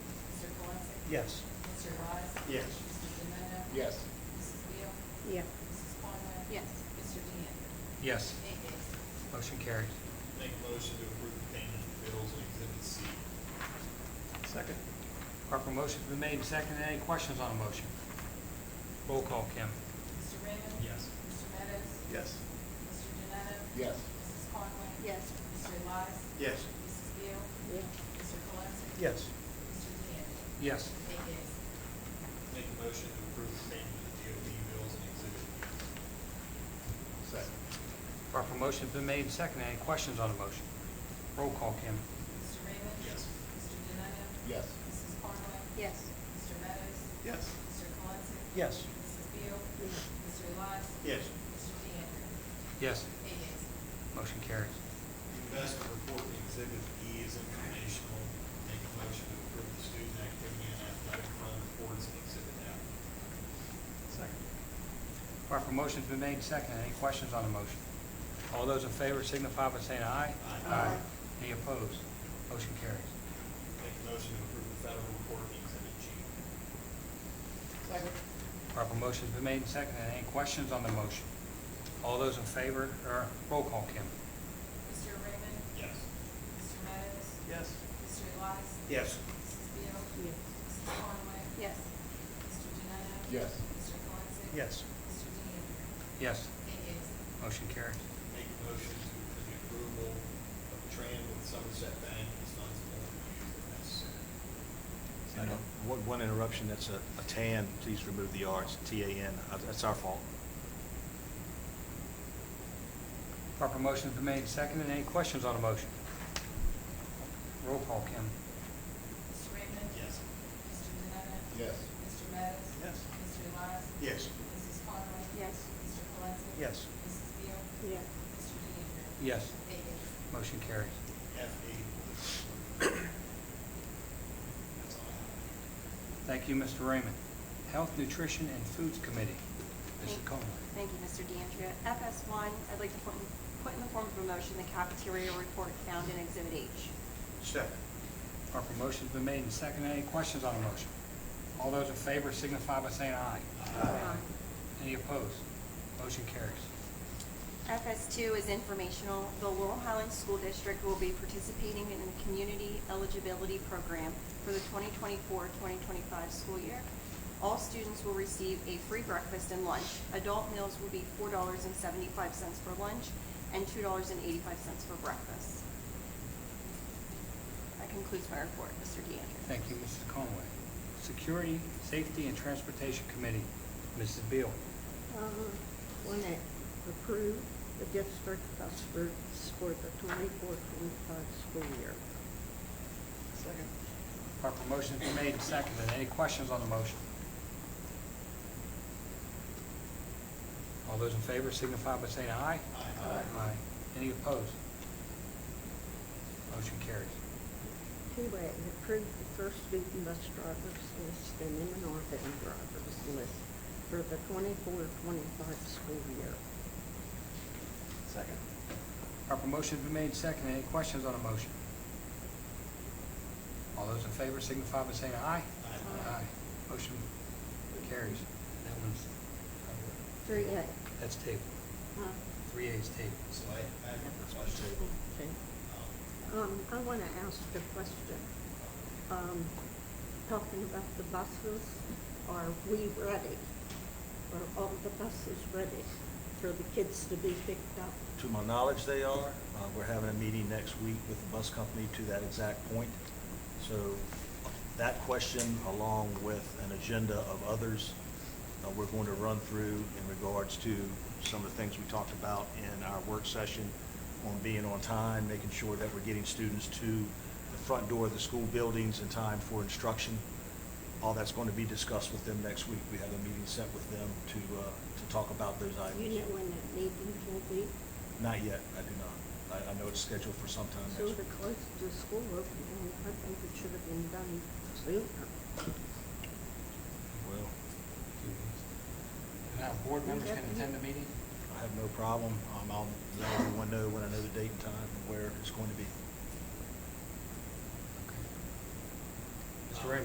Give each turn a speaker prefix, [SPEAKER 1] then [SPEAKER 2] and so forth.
[SPEAKER 1] Yes.
[SPEAKER 2] Mr. Wise?
[SPEAKER 3] Yes.
[SPEAKER 2] Mr. Demeto?
[SPEAKER 3] Yes.
[SPEAKER 2] Mrs. Beal?
[SPEAKER 4] Yeah.
[SPEAKER 2] Mrs. Conway?
[SPEAKER 4] Yes.
[SPEAKER 2] Mr. DeAndrea?
[SPEAKER 5] Yes,
[SPEAKER 2] Eight yeas.
[SPEAKER 5] motion carries.
[SPEAKER 3] Make a motion to approve the payment of bills on Exhibit C.
[SPEAKER 1] Second.
[SPEAKER 5] Proper motion's been made and seconded. Any questions on the motion? Roll call, Kim.
[SPEAKER 2] Mr. Raymond?
[SPEAKER 3] Yes.
[SPEAKER 2] Mr. Meadows?
[SPEAKER 1] Yes.
[SPEAKER 2] Mr. Demeto?
[SPEAKER 3] Yes.
[SPEAKER 2] Mrs. Conway?
[SPEAKER 4] Yes.
[SPEAKER 2] Mr. Wise?
[SPEAKER 3] Yes.
[SPEAKER 2] Mrs. Beal?
[SPEAKER 4] Yeah.
[SPEAKER 2] Mr. Cologne?
[SPEAKER 1] Yes.
[SPEAKER 2] Mr. DeAndrea?
[SPEAKER 5] Yes,
[SPEAKER 2] Eight yeas.
[SPEAKER 3] Make a motion to approve the payment of DOB bills on Exhibit B. Second.
[SPEAKER 5] proper motion's been made and seconded. Any questions on the motion? Roll call, Kim.
[SPEAKER 2] Mr. Raymond?
[SPEAKER 3] Yes.
[SPEAKER 2] Mr. Demeto?
[SPEAKER 3] Yes.
[SPEAKER 2] Mrs. Conway?
[SPEAKER 4] Yes.
[SPEAKER 2] Mr. Meadows?
[SPEAKER 3] Yes.
[SPEAKER 2] Mr. Cologne?
[SPEAKER 1] Yes.
[SPEAKER 2] Mrs. Beal? Mr. Wise?
[SPEAKER 3] Yes.
[SPEAKER 2] Mr. DeAndrea?
[SPEAKER 5] Yes,
[SPEAKER 2] Eight yeas.
[SPEAKER 5] motion carries.
[SPEAKER 3] Investment report in Exhibit E is informational. Make a motion to approve the student activity and athletic fund reports in Exhibit F.
[SPEAKER 1] Second.
[SPEAKER 5] Proper motion's been made and seconded. Any questions on the motion? All those in favor signify by saying aye.
[SPEAKER 3] Aye.
[SPEAKER 5] Any opposed? Motion carries.
[SPEAKER 3] Make a motion to approve the federal report in Exhibit G.
[SPEAKER 5] Proper motion's been made and seconded. Any questions on the motion? All those in favor, or roll call, Kim.
[SPEAKER 2] Mr. Raymond?
[SPEAKER 3] Yes.
[SPEAKER 2] Mr. Meadows?
[SPEAKER 1] Yes.
[SPEAKER 2] Mr. Elias?
[SPEAKER 1] Yes.
[SPEAKER 2] Mrs. Beal?
[SPEAKER 4] Yeah.
[SPEAKER 2] Mrs. Conway?
[SPEAKER 4] Yes.
[SPEAKER 2] Mr. Denona?
[SPEAKER 3] Yes.
[SPEAKER 2] Mr. Colson?
[SPEAKER 1] Yes.
[SPEAKER 2] Mr. DeAndrea?
[SPEAKER 5] Yes,
[SPEAKER 2] Eight yeas.
[SPEAKER 5] motion carries.
[SPEAKER 3] Make a motion to approve the approval of Tran with Somerset Bank as funds available to use if
[SPEAKER 6] And
[SPEAKER 3] necessary.
[SPEAKER 6] uh, one, one interruption, that's a, a tan, please remove the R, it's T-A-N, Uh, that's our fault.
[SPEAKER 5] Proper motion's been made and seconded. Any questions on the motion? Roll call, Kim.
[SPEAKER 2] Mr. Raymond?
[SPEAKER 3] Yes.
[SPEAKER 2] Mr. Denona?
[SPEAKER 3] Yes.
[SPEAKER 2] Mr. Meadows?
[SPEAKER 1] Yes.
[SPEAKER 2] Mr. Elias?
[SPEAKER 1] Yes.
[SPEAKER 2] Mrs. Conway?
[SPEAKER 4] Yes.
[SPEAKER 2] Mr. Colson?
[SPEAKER 1] Yes.
[SPEAKER 2] Mrs. Beal?
[SPEAKER 4] Yeah.
[SPEAKER 2] Mr. DeAndrea?
[SPEAKER 5] Yes,
[SPEAKER 2] Eight yeas.
[SPEAKER 5] motion carries.
[SPEAKER 3] F E. eight. That's all I have.
[SPEAKER 5] Thank you, Mr. Raymond. Health, Nutrition, and Foods Committee. Mrs. Conway.
[SPEAKER 7] Thank you, Mr. DeAndrea. FS one, I'd like to put in, put in the form of a motion the cafeteria report found in Exhibit H.
[SPEAKER 1] Second.
[SPEAKER 5] Proper motion's been made and seconded. Any questions on the motion? All those in favor signify by saying aye.
[SPEAKER 7] Aye.
[SPEAKER 5] Any opposed? Motion carries.
[SPEAKER 7] FS two is informational. The Laurel Highlands School District will be participating in the Community Eligibility Program for the 2024-2025 school year. All students will receive a free breakfast and lunch. Adult meals will be four dollars and seventy-five cents for lunch and two dollars and eighty-five cents for breakfast. That concludes my report, Mr. DeAndrea.
[SPEAKER 5] Thank you, Mrs. Conway. Security, Safety, and Transportation Committee, Mrs. Beal.
[SPEAKER 4] Uh, Want to approve the district bus routes for the twenty-four, twenty-five school year.
[SPEAKER 1] Second.
[SPEAKER 5] Proper motion's been made and seconded. Any questions on the motion? All those in favor signify by saying aye.
[SPEAKER 3] Aye.
[SPEAKER 5] Any opposed? Motion carries.
[SPEAKER 4] Two A, approve the first student bus drivers list and M&R van drivers list for the twenty-four, twenty-five school year.
[SPEAKER 1] Second.
[SPEAKER 5] Proper motion's been made and seconded. Any questions on the motion? All those in favor signify by saying aye.
[SPEAKER 3] Aye.
[SPEAKER 5] Motion carries. That one's,
[SPEAKER 4] Three A.
[SPEAKER 5] that's table.
[SPEAKER 4] Huh?
[SPEAKER 5] Three A's table.
[SPEAKER 3] So I, I have a question.
[SPEAKER 4] Okay.
[SPEAKER 3] Um,
[SPEAKER 4] Um, I want to ask a question. Um, talking about the buses, are we ready? Are all the buses ready for the kids to be picked up?
[SPEAKER 6] To my knowledge, they are. Uh, We're having a meeting next week with the bus company to that exact point. So that question, along with an agenda of others, uh, we're going to run through in regards to some of the things we talked about in our work session on being on time, making sure that we're getting students to the front door of the school buildings in time for instruction. All that's going to be discussed with them next week. We have a meeting set with them to, uh, to talk about those items.
[SPEAKER 4] You know when that meeting will be,
[SPEAKER 6] Not yet, I do not. I, I know it's scheduled for sometime
[SPEAKER 4] so
[SPEAKER 6] next
[SPEAKER 4] the
[SPEAKER 6] week.
[SPEAKER 4] close to school opening, I think it should have been done sooner.
[SPEAKER 6] Well,
[SPEAKER 5] And our board members can attend the meeting?
[SPEAKER 6] I have no problem. Um, I'll let everyone know when I know the date and time and where it's going to be.